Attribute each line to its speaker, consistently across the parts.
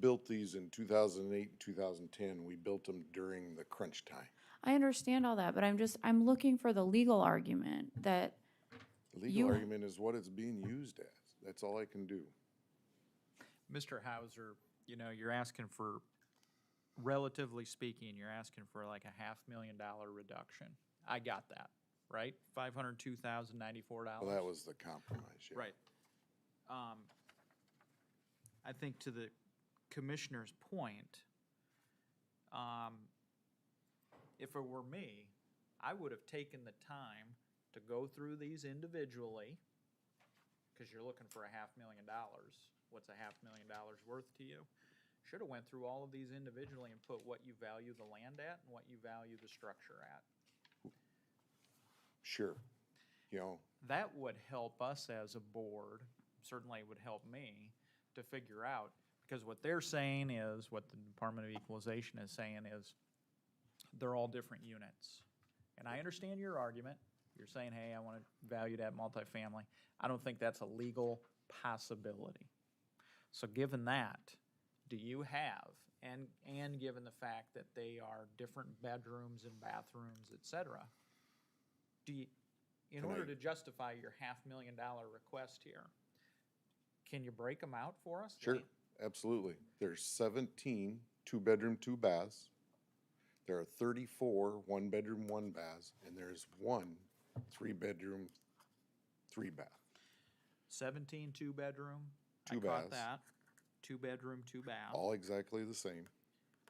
Speaker 1: built these in two thousand and eight, two thousand and ten. We built them during the crunch time.
Speaker 2: I understand all that, but I'm just, I'm looking for the legal argument that, You-
Speaker 1: Legal argument is what it's being used as. That's all I can do.
Speaker 3: Mr. Hauser, you know, you're asking for, relatively speaking, you're asking for like a half million dollar reduction. I got that, right? Five hundred two thousand ninety-four dollars.
Speaker 1: Well, that was the compromise, yeah.
Speaker 3: Right. Um, I think to the commissioner's point, um, if it were me, I would have taken the time to go through these individually, because you're looking for a half million dollars. What's a half million dollars worth to you? Should have went through all of these individually and put what you value the land at and what you value the structure at.
Speaker 1: Sure. You know,
Speaker 3: that would help us as a board, certainly would help me, to figure out, because what they're saying is, what the Department of Equalization is saying is, they're all different units. And I understand your argument, you're saying, hey, I want to value that multifamily. I don't think that's a legal possibility. So given that, do you have, and, and given the fact that they are different bedrooms and bathrooms, et cetera, do you, in
Speaker 1: Can
Speaker 3: order
Speaker 1: I-
Speaker 3: to justify your half million dollar request here, can you break them out for us?
Speaker 1: sure, absolutely. There's seventeen two-bedroom, two baths. There are thirty-four one-bedroom, one baths, and there's one three-bedroom, three bath.
Speaker 3: Seventeen two-bedroom?
Speaker 1: Two
Speaker 3: I caught
Speaker 1: baths.
Speaker 3: that. Two-bedroom, two bath.
Speaker 1: All exactly the same.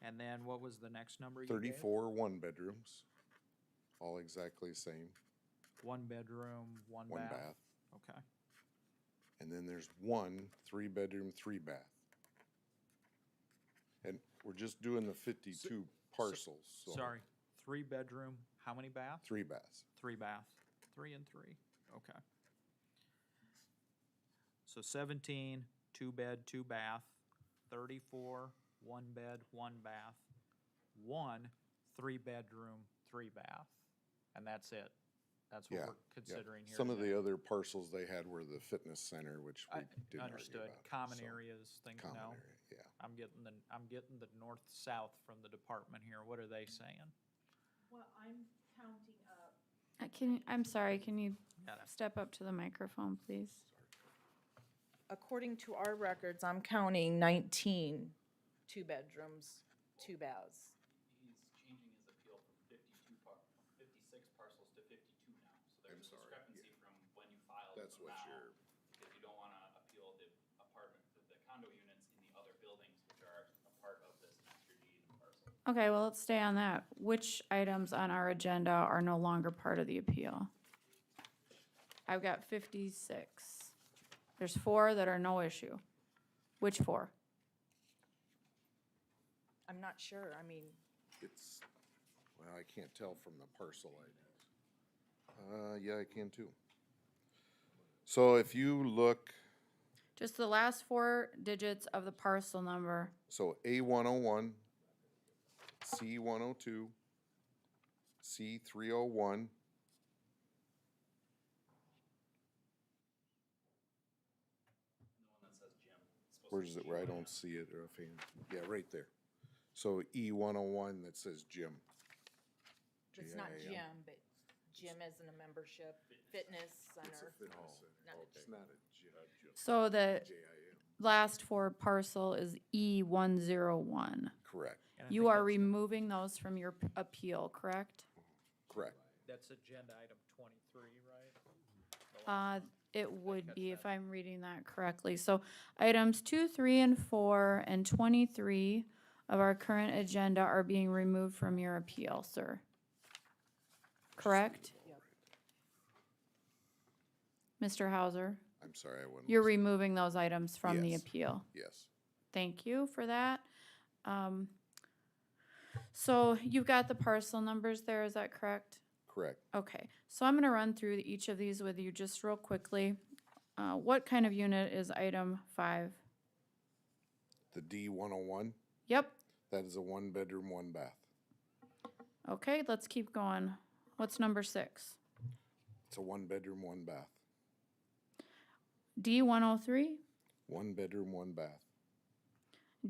Speaker 3: And then what was the next number you gave?
Speaker 1: Thirty-four one-bedrooms, all exactly the same,
Speaker 3: One bedroom, one
Speaker 1: one
Speaker 3: bath.
Speaker 1: bath.
Speaker 3: Okay.
Speaker 1: And then there's one three-bedroom, three bath. And we're just doing the fifty-two parcels, so.
Speaker 3: Sorry, three-bedroom, how many baths?
Speaker 1: Three baths.
Speaker 3: Three baths, three and three, okay. So seventeen, two bed, two bath, thirty-four, one bed, one bath, one, three bedroom, three bath, and that's it. That's what
Speaker 1: Yeah,
Speaker 3: we're
Speaker 1: Yeah.
Speaker 3: considering here.
Speaker 1: Some of
Speaker 3: today.
Speaker 1: the other parcels they had were the fitness center, which we
Speaker 3: I-
Speaker 1: didn't argue
Speaker 3: Understood,
Speaker 1: about,
Speaker 3: common
Speaker 1: so,
Speaker 3: areas, things,
Speaker 1: Common
Speaker 3: no,
Speaker 1: area, yeah.
Speaker 3: I'm getting the, I'm getting the north-south from the department here, what are they saying?
Speaker 4: Well, I'm counting up
Speaker 2: I Uh, can, I'm sorry, can you
Speaker 3: Got it.
Speaker 2: step up to the microphone, please?
Speaker 4: according to our records, I'm counting 19 two bedrooms, two baths.
Speaker 5: he's changing his appeal from fifty-two par, from fifty-six parcels to fifty-two now. So there's a discrepancy from when you filed
Speaker 1: That's
Speaker 5: to
Speaker 1: what
Speaker 5: now,
Speaker 1: you're-
Speaker 5: because you don't wanna appeal the apartment, the the condo units in the other buildings, which are a part of this master deed parcel.
Speaker 2: Okay, well, let's stay on that. Which items on our agenda are no longer part of the appeal? I've got fifty-six. There's four that are no issue. Which four?
Speaker 4: I'm not sure, I mean,
Speaker 1: It's, well, I can't tell from the parcel IDs. Uh, yeah, I can too. So if you look,
Speaker 2: Just the last four digits of the parcel number.
Speaker 1: so A one oh one, C one oh two, C three oh one, Where is it where I don't see it offhand? Yeah, right there. So E one oh one that says gym.
Speaker 4: it's not
Speaker 1: G I M.
Speaker 4: gym, but gym isn't a membership, fitness center. Not a
Speaker 1: It's not a gym.
Speaker 2: So the last four parcel is E one zero one.
Speaker 1: Correct,
Speaker 3: And I
Speaker 2: You
Speaker 3: think
Speaker 2: are
Speaker 3: that's-
Speaker 2: removing those from your p- appeal, correct?
Speaker 1: correct.
Speaker 3: That's agenda item twenty-three, right?
Speaker 2: Uh, it would be if I'm reading that correctly. So items two, three, and four, and twenty-three of our current agenda are being removed from your appeal, sir. Correct? Mr. Hauser,
Speaker 1: I'm sorry, I went.
Speaker 2: you're
Speaker 1: last.
Speaker 2: removing those items from the
Speaker 1: Yes.
Speaker 2: appeal.
Speaker 1: Yes,
Speaker 2: Thank you for that. Um, so you've got the parcel numbers there, is that correct?
Speaker 1: correct.
Speaker 2: Okay, so I'm gonna run through each of these with you just real quickly. Uh, what kind of unit is item five?
Speaker 1: The D one oh one,
Speaker 2: Yep,
Speaker 1: that is a one bedroom, one bath.
Speaker 2: okay, let's keep going. What's number six?
Speaker 1: It's a one bedroom, one bath.
Speaker 2: D one oh three,
Speaker 1: One bedroom, one bath.